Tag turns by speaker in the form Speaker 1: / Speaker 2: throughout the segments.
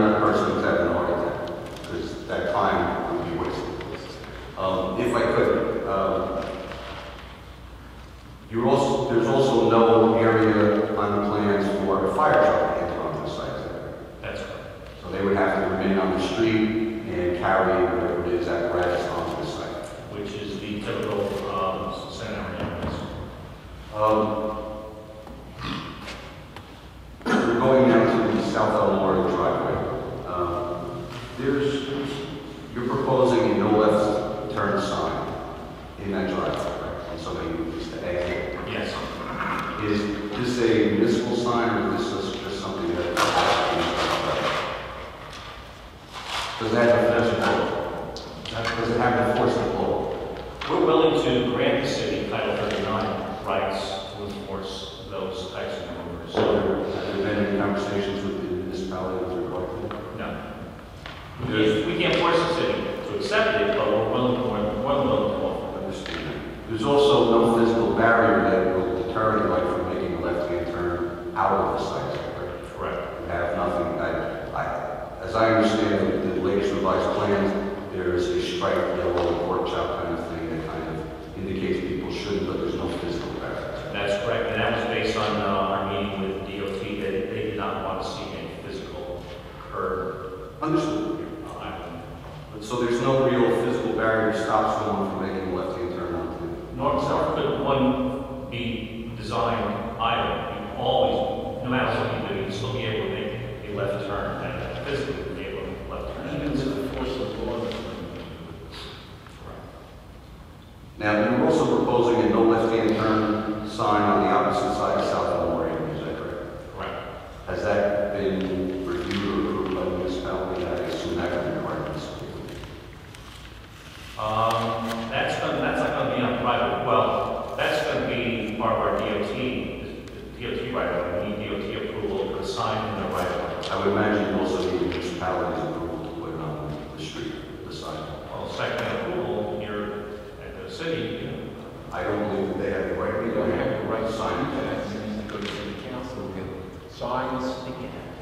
Speaker 1: Um, there's um, also no area on the plans for a fire truck to enter onto the site.
Speaker 2: That's right.
Speaker 1: So they would have to remain on the street and carry whatever it is apparatus onto the site.
Speaker 2: Which is the typical, um, San Andreas.
Speaker 1: Um, We're going down to the South Elmore driveway. Um, There's, you're proposing a no left turn sign in that driveway, correct? And somebody needs to exit.
Speaker 2: Yes.
Speaker 1: Is this a municipal sign or is this just something that? Does that have to Does it have to force the law?
Speaker 2: We're willing to grant the city Title 39 rights to enforce those types of orders. So,
Speaker 1: So have there been any conversations with the municipality with regard to that?
Speaker 2: no. We we can't force the city to accept it, but we're willing, we're we're willing to offer.
Speaker 1: There's also no physical barrier that will deter anybody from making a left-hand turn out of the site. correct?
Speaker 2: Correct.
Speaker 1: We have nothing, I, I, as I understand it, the latest revised plans, there is a striped yellow workshop kind of thing that kind of indicates people shouldn't, but there's no physical barrier.
Speaker 2: That's correct, and that was based on uh, our meeting with DOT, that they did not want to see any physical curb.
Speaker 1: Understood.
Speaker 2: uh,
Speaker 1: But So there's no real physical barrier that stops someone from making a left-hand turn onto
Speaker 2: Nor nor could one be designed either. You always, no matter what you do, you still be able to make a left turn, and physically be able to make a left turn.
Speaker 3: Even with the force of law.
Speaker 1: Now, you're also proposing a no left-hand turn sign on the opposite side of South Elmore Avenue, is that correct?
Speaker 2: Correct.
Speaker 1: Has that been reviewed or approved by the municipality? I assume that would require this.
Speaker 2: Um, that's gonna, that's not gonna be on private, well, that's gonna be part of our DOT, the DOT right of, way. we need DOT approval for the sign in the right of. way.
Speaker 1: I would imagine you also need municipalities approval to put it on the street, the sidewalk.
Speaker 2: Well, site plan approval here at the city, you know,
Speaker 1: I don't believe that they have the right, they don't have the right sign to that.
Speaker 3: to go to the council, get signs,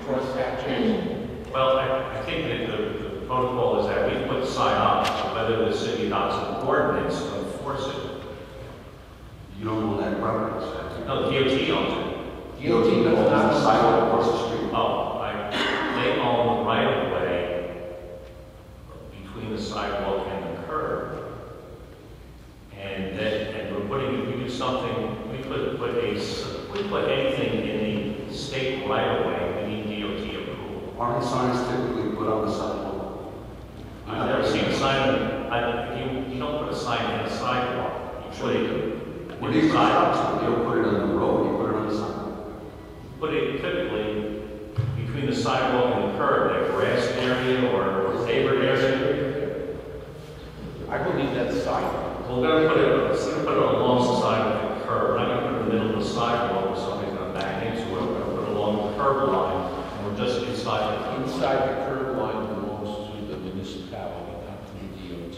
Speaker 3: cross sections.
Speaker 2: Well, I, I think that the, the protocol is that we put the sign up, whether the city adopts an ordinance to enforce it.
Speaker 1: You don't own that property, so.
Speaker 2: No, DOT owns
Speaker 1: DOT does not have a sidewalk across the street.
Speaker 2: it. Oh, I, they own the right of way between the sidewalk and the curb. And that, and we're putting, we do something, we could put a, s- we put anything in the state right of way, we need DOT approval.
Speaker 1: Aren't signs typically put on the sidewalk?
Speaker 2: I've never seen a sign, I, you, you don't put a sign in a sidewalk, you put it.
Speaker 1: When these sidewalks, you don't put it on the road, you put it on the sidewalk.
Speaker 2: Put it typically between the sidewalk and the curb, that grass area or paper area.
Speaker 3: I believe that's sidewalk.
Speaker 2: Well, we're gonna put it, we're gonna put it along the side of the curb, we're not gonna put it in the middle of the sidewalk where somebody's gonna back into it, we're gonna put it along the curb line, and we're just inside the curb.
Speaker 3: Inside the curb line belongs to the municipality, not to the DOT.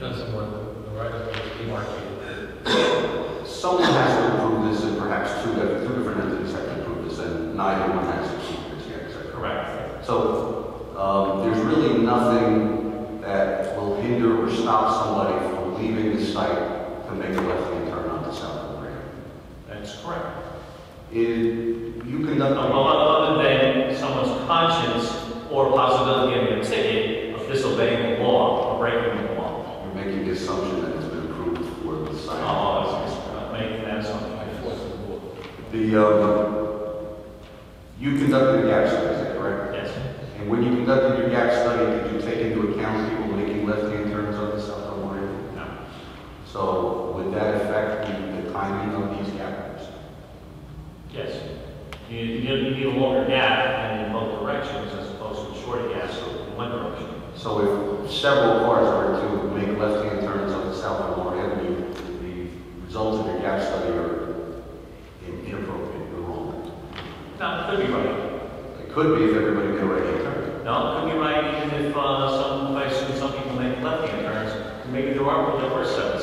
Speaker 4: Doesn't want the right of way to be marketed.
Speaker 1: Someone has to approve this, and perhaps two, two different entities have to approve this, and neither one has approved this yet, is that correct?
Speaker 2: Correct.
Speaker 1: So, um, there's really nothing that will hinder or stop somebody from leaving the site to make a left-hand turn onto South Elmore.
Speaker 2: That's correct.
Speaker 1: If you
Speaker 2: No,
Speaker 1: conduct a
Speaker 2: no, Other than someone's conscience or possibility of a ticket of disobeying the law or breaking the law.
Speaker 1: you're making the assumption that it's been approved for the site.
Speaker 2: Oh, it's, it's not making that
Speaker 3: By
Speaker 2: something.
Speaker 3: force of law.
Speaker 1: The, um, you conducted a gap study, is that correct?
Speaker 2: Yes,
Speaker 1: And when you conducted your gap study, did you take into account people making left-hand turns onto South Elmore?
Speaker 2: no,
Speaker 1: So would that affect the the timing of these gaps?
Speaker 2: yes. You, you need- you need a longer gap in both directions as opposed to a shorter gap so in one direction.
Speaker 1: So if several cars are to make left-hand turns on the South Lamar Avenue, the results of your gap study are in- inappropriate or wrong.
Speaker 2: No, it could be right.
Speaker 1: It could be if everybody made a right-hand turn.
Speaker 2: No, it could be right even if, uh, some, if I assume some people make left-hand turns. Maybe there are, there were seven